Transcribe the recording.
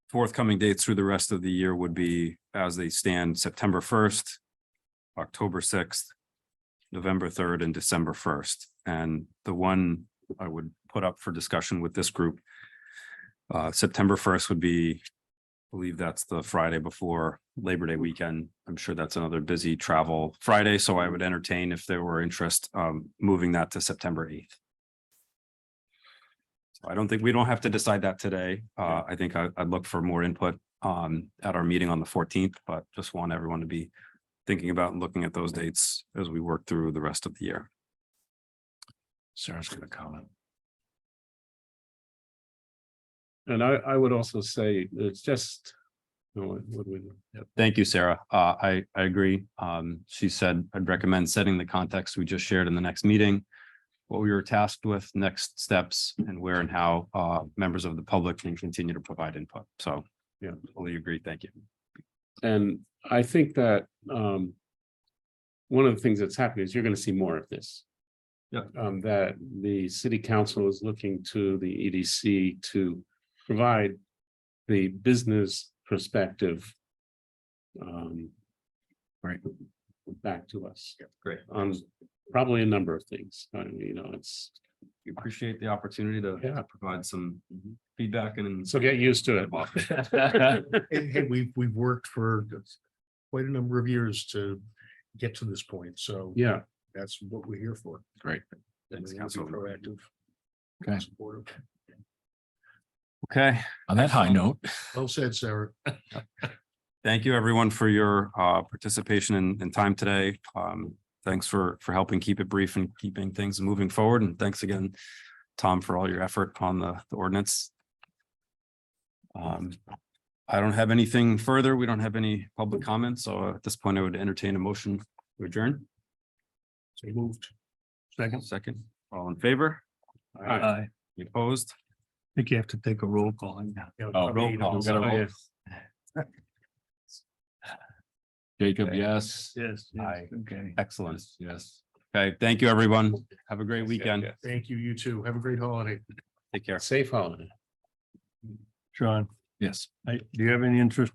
forthcoming dates through the rest of the year would be as they stand, September first, October sixth, November third and December first. And the one I would put up for discussion with this group, uh, September first would be, I believe that's the Friday before Labor Day weekend. I'm sure that's another busy travel Friday, so I would entertain if there were interest, um, moving that to September eighth. So I don't think, we don't have to decide that today. Uh, I think I, I'd look for more input on, at our meeting on the fourteenth, but just want everyone to be thinking about and looking at those dates as we work through the rest of the year. Sarah's gonna comment. And I, I would also say it's just, you know, what what we, yep, Thank you, Sarah. Uh, I, I agree. Um, she said, I'd recommend setting the context we just shared in the next meeting. What we were tasked with, next steps and where and how, uh, members of the public can continue to provide input. So. Yeah. Totally agree. Thank you. and I think that, um. One of the things that's happening is you're gonna see more of this. Yep. Um, that the city council is looking to the EDC to provide the business perspective. Um. Right. Back to us Great. on probably a number of things, I mean, you know, it's, We appreciate the opportunity to yeah, Mm-hmm. provide some feedback and. so get used to it. And hey, we've, we've worked for quite a number of years to get to this point, so Yeah, that's what we're here for. Great. Thanks, Be Councilman. Proactive. Okay. Supportive. Okay. On that high note, Well said, Sarah. Thank you, everyone, for your uh participation and and time today. Um, thanks for for helping keep it brief and keeping things moving forward. And thanks again, Tom, for all your effort on the the ordinance. Um, I don't have anything further. We don't have any public comments, so at this point, I would entertain a motion to adjourn. So moved. Second. Second, all in favor? Aye. Uh, I Any Opposed? think you have to take a roll call. Oh, roll call. We gotta roll. Jacob, yes. Yes. Aye. Okay. Excellent. Yes. Okay, thank you, everyone. Have a great Yes, yes, weekend. yes. Thank you, you too. Have a great holiday. Take care. Safe holiday. Sean, Yes. I, do you have any interest